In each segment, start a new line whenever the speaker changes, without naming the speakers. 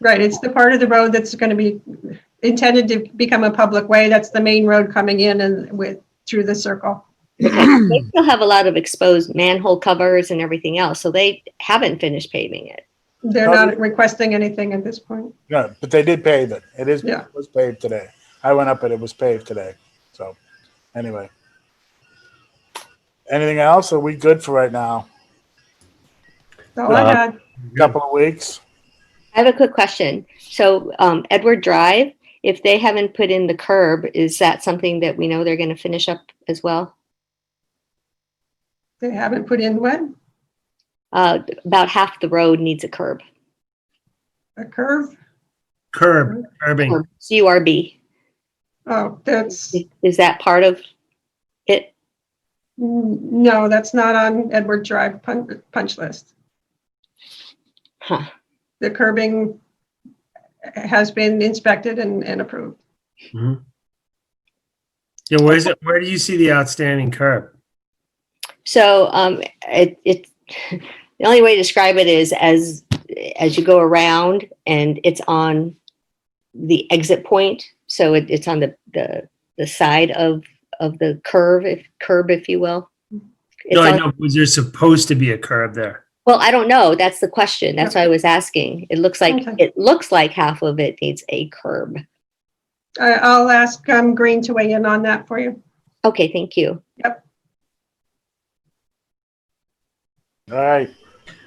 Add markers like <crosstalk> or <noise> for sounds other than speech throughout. Right, it's the part of the road that's going to be intended to become a public way. That's the main road coming in and with, through the circle.
They still have a lot of exposed manhole covers and everything else, so they haven't finished paving it.
They're not requesting anything at this point.
No, but they did pave it. It is,
Yeah.
it was paved today. I went up and it was paved today. So, anyway. Anything else? Are we good for right now?
That's all I
Uh-huh.
Uh,
had.
Couple of weeks?
I have a quick question. So um, Edward Drive, if they haven't put in the curb, is that something that we know they're going to finish up as well?
They haven't put in what?
Uh, about half the road needs a curb,
A curve?
Curb, curbing.
or CURB.
Oh, that's,
Is- Is that part of it?
no, that's not on Edward Drive pun- punch list.
Huh.
The curbing has been inspected and, and approved.
Yeah, where is it? Where do you see the outstanding curb?
So um, it, it <laughs> the only way to describe it is as as you go around and it's on the exit point. So it, it's on the, the the side of of the curve, if curb, if you will. It's
No, I
on-
know, was there supposed to be a curb there?
Well, I don't know. That's the question. That's why I was asking. It looks like
Okay.
it looks like half of it needs a curb.
I, I'll ask, um, Green to weigh in on that for you.
Okay, thank you.
All right.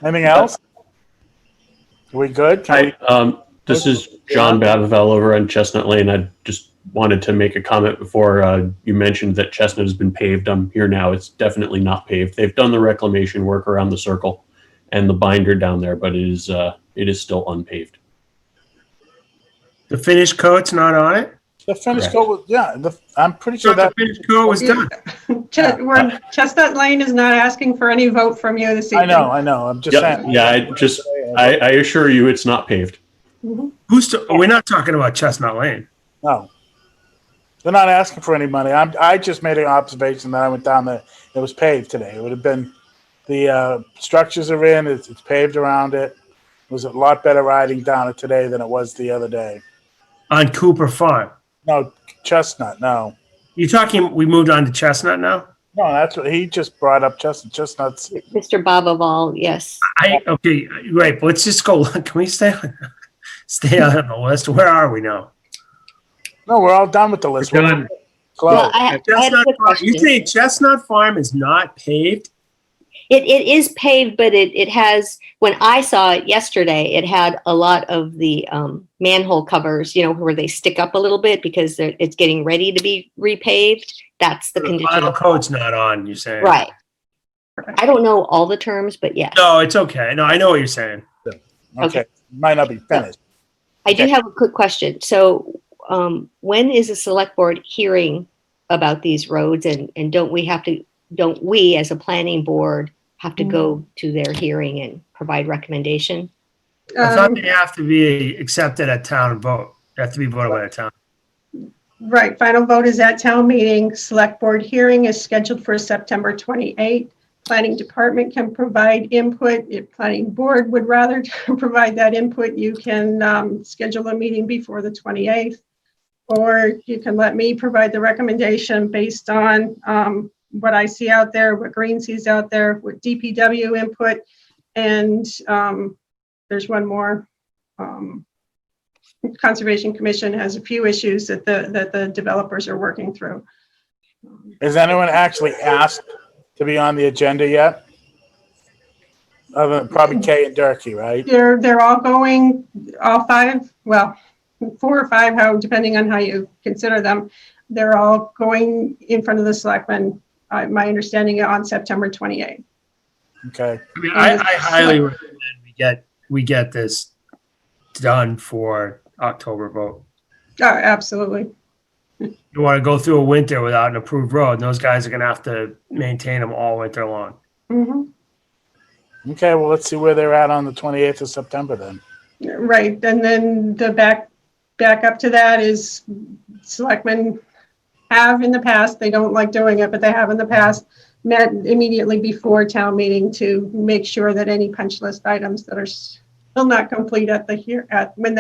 Anything else? Are we good? Can
Hi, um, this is John Bavavell over on Chestnut Lane. I just wanted to make a comment before uh, you mentioned that Chestnut has been paved. I'm here now. It's definitely not paved. They've done the reclamation work around the circle and the binder down there, but it is uh, it is still unpaved.
The finished coat's not on it?
we- The finish
Correct.
coat was, yeah, the, I'm pretty
So
sure
the
that,
finished coat was done.
Ch- we're- Chestnut Lane is not asking for any vote from you this evening.
I know, I know. I'm just
Yep,
saying.
yeah, I just- I, I assure you, it's not paved.
Mhm.
Who's, to- we're not talking about Chestnut Lane.
No. They're not asking for any money. I'm, I just made an observation that I went down there. It was paved today. It would have been, the uh, structures are in, it's, it's paved around it. It was a lot better riding down it today than it was the other day.
On Cooper Farm.
No, Chestnut, no.
You're talking, we moved on to Chestnut now?
No, that's what he just brought up. Chestnut, Chestnut's,
Mr. Boboval, yes.
I, okay, right, but let's just go, <laughs> can we stay, on- stay on the list? Where are we now?
no, we're all done with the list.
We're done.
Well,
Close.
I, I had a
Chestnut
quick
Farm,
question.
you saying Chestnut Farm is not paved?
It, it is paved, but it, it has, when I saw it yesterday, it had a lot of the um, manhole covers, you know, where they stick up a little bit because they're, it's getting ready to be repaved. That's the
The
condition.
final
of-
coat's not on, you're saying?
Right. I don't know all the terms, but yes.
No, it's okay. No, I know what you're saying.
Okay, might not be finished.
I do
Okay.
have a quick question. So, um, when is the select board hearing about these roads and, and don't we have to, don't we as a planning board have to go to their hearing and provide recommendation?
I thought
Um,
they have to be accepted at town vote. They have to be voted by the town.
Right, final vote is at town meeting. Select board hearing is scheduled for September 28. Planning department can provide input. If planning board would rather <laughs> provide that input, you can um, schedule a meeting before the 28th. Or you can let me provide the recommendation based on um, what I see out there, what Green sees out there, what DPW input. And um, there's one more. um, Conservation Commission has a few issues that the, that the developers are working through.
Has anyone actually asked to be on the agenda yet? Other than probably Kay and Durkee, right?
They're, they're all going, all five, well, four or five, how, depending on how you consider them. They're all going in front of the selectmen, uh, my understanding on September 28th.
Okay.
I mean, I, I highly recommend we get, we get this done for October vote.
Oh, absolutely.
You want to go through a winter without an approved road, and those guys are going to have to maintain them all winter long.
Mhm.
Okay, well, let's see where they're at on the 28th of September then.
Right, and then the back, back up to that is selectmen have in the past, they don't like doing it, but they have in the past, met immediately before town meeting to make sure that any punch list items that are still not complete at the here, at, when they